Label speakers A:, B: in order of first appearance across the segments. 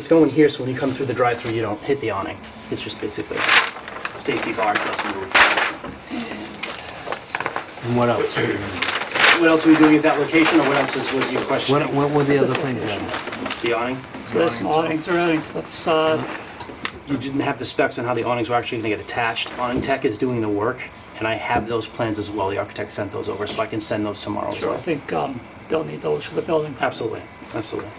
A: It's going here, so when you come through the drive-through, you don't hit the awning. It's just basically safety bar plus move.
B: And what else?
A: What else are we doing at that location, or what else is- was your question?
B: What, what were the other things then?
A: The awning?
C: So there's some awnings running to the facade.
A: You didn't have the specs on how the awnings were actually going to get attached. Awning Tech is doing the work, and I have those plans as well. The architect sent those over, so I can send those tomorrow as
C: So I
A: well.
C: think um, they'll need those for the building.
A: Absolutely, absolutely.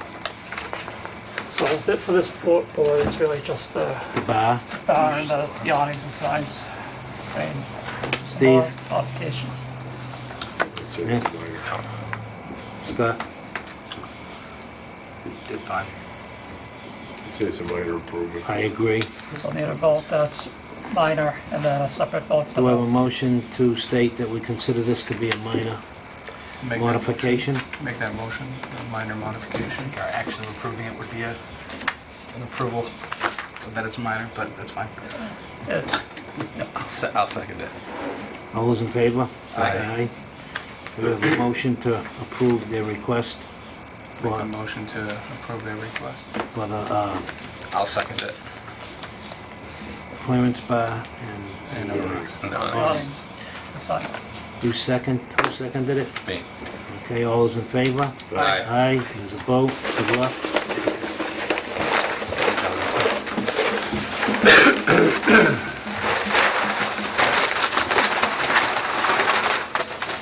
C: So that- for this board, board, it's really just the
B: The bar?
C: bar and the the awnings and signs. I mean,
B: Steve?
C: mod- Modification.
B: Scott?
D: Did fine.
E: Say it's a minor improvement.
B: I agree.
C: So need a vote that's minor and then a separate vote for
B: Do I have a
C: the
B: motion to state that we consider this to be a minor
D: Make that,
B: modification?
D: make that motion, a minor modification. Our action of approving it would be a, an approval that it's minor, but that's fine.
C: It's
D: I'll se- I'll second it.
B: All those in favor?
D: Aye.
B: Do we have a motion to approve their request
D: Make a
B: for,
D: motion to approve their request.
B: for the uh,
D: I'll second it.
B: clearance bar and...
D: And
C: awnings, the sign.
B: You second, who seconded it?
D: Me.
B: Okay, all those in favor?
D: Aye.
B: Aye, there's a vote, good luck.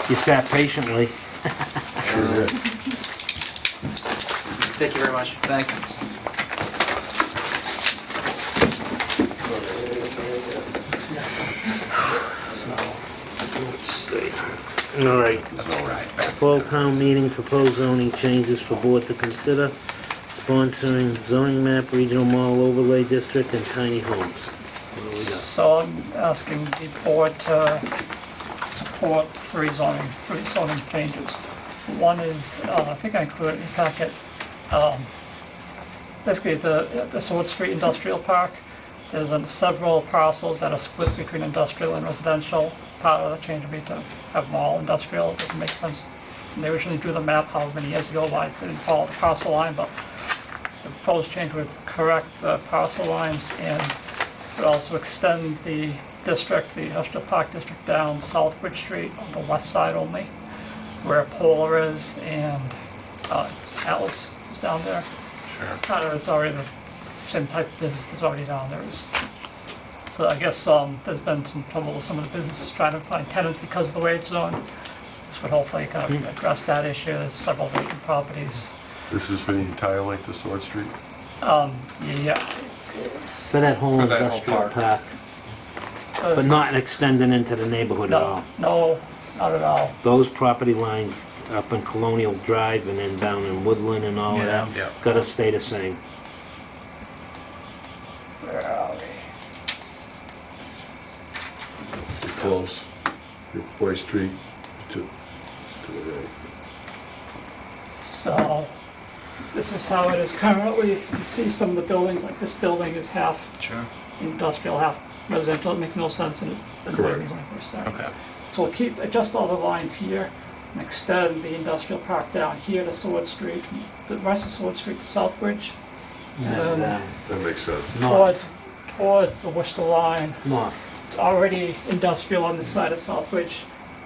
B: You sat patiently.
A: Thank you very much.
D: Thanks.
B: All right,
D: That's all right.
B: fall town meeting, proposed zoning changes for board to consider, sponsoring zoning map, regional mall overlay district, and tiny homes. What do we got?
C: So I'm asking the board to support three zoning, three zoning changes. One is, uh, I think I included in the packet, um, basically the, the Sword Street Industrial Park. There's um, several parcels that are split between industrial and residential. Part of the change would be to have them all industrial, it doesn't make sense. And They originally drew the map however many years ago, why they didn't follow the parcel line, but the proposed change would correct the parcel lines and would also extend the district, the industrial park district down South Bridge Street on the west side only, where Polar is and uh, it's Atlas is down there.
D: Sure.
C: Kind of, it's already the same type of business that's already down there. It's- So I guess um, there's been some trouble with some of the businesses trying to find tenants because of the way it's zoned. This would hopefully kind of address that issue. There's several vacant properties.
E: This is for the entire length of Sword Street?
C: Um, Yeah,
B: For that whole
D: For that whole
B: industrial
D: park.
B: park,
C: uh,
B: but not extending into the neighborhood at all.
C: No, no, not at all.
B: those property lines up in Colonial Drive and then down in Woodland and all of
D: Yeah,
B: that,
D: yeah.
B: gotta stay the same.
C: Where are we?
E: You're close. Your Boy Street to, to the right.
C: So, this is how it is currently. You can see some of the buildings, like this building is half
D: Sure.
C: industrial, half residential. It makes no sense in the way
E: Correct.
C: we went first started.
D: Okay.
C: So we'll keep, adjust all the lines here and extend the industrial park down here to Sword Street, the rest of Sword Street to Southbridge,
B: And, uh,
E: That makes sense.
C: towards,
B: North,
C: towards the Worcester line.
B: north,
C: It's already industrial on this side of Southbridge.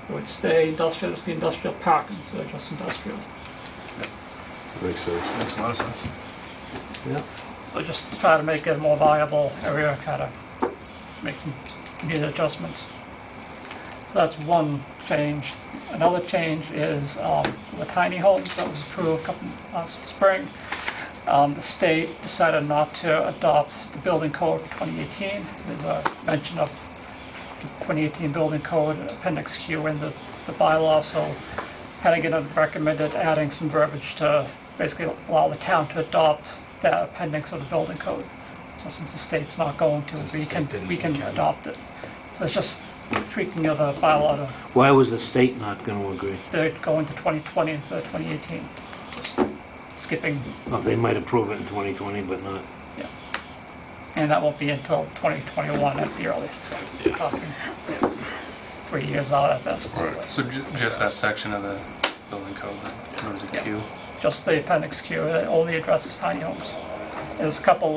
C: It would stay industrial, just be industrial park instead of just industrial.
E: Makes sense.
D: Makes a lot of sense.
B: yeah.
C: So just to try to make it a more viable area, kind of make some needed adjustments. So that's one change. Another change is um, the tiny homes that was approved a couple, last spring. Um, The state decided not to adopt the building code for 2018. There's a mention of the 2018 building code, appendix Q in the the bylaw, so Hannigan recommended adding some verbiage to basically allow the town to adopt that appendix of the building code. So since the state's not going to,
D: the
C: we
D: state
C: can,
D: didn't,
C: we can
D: we can.
C: adopt it. So it's just tweaking of the bylaw to,
B: Why was the state not gonna agree?
C: they're going to 2020 instead of 2018. Just Skipping,
B: Well, they might approve it in 2020, but not,
C: yeah. And that won't be until 2021 at the earliest, so we're talking three years out at best.
D: So ju- just that section of the building code, that was a Q.
C: uh, Just the appendix Q, it only addresses tiny homes. There's a couple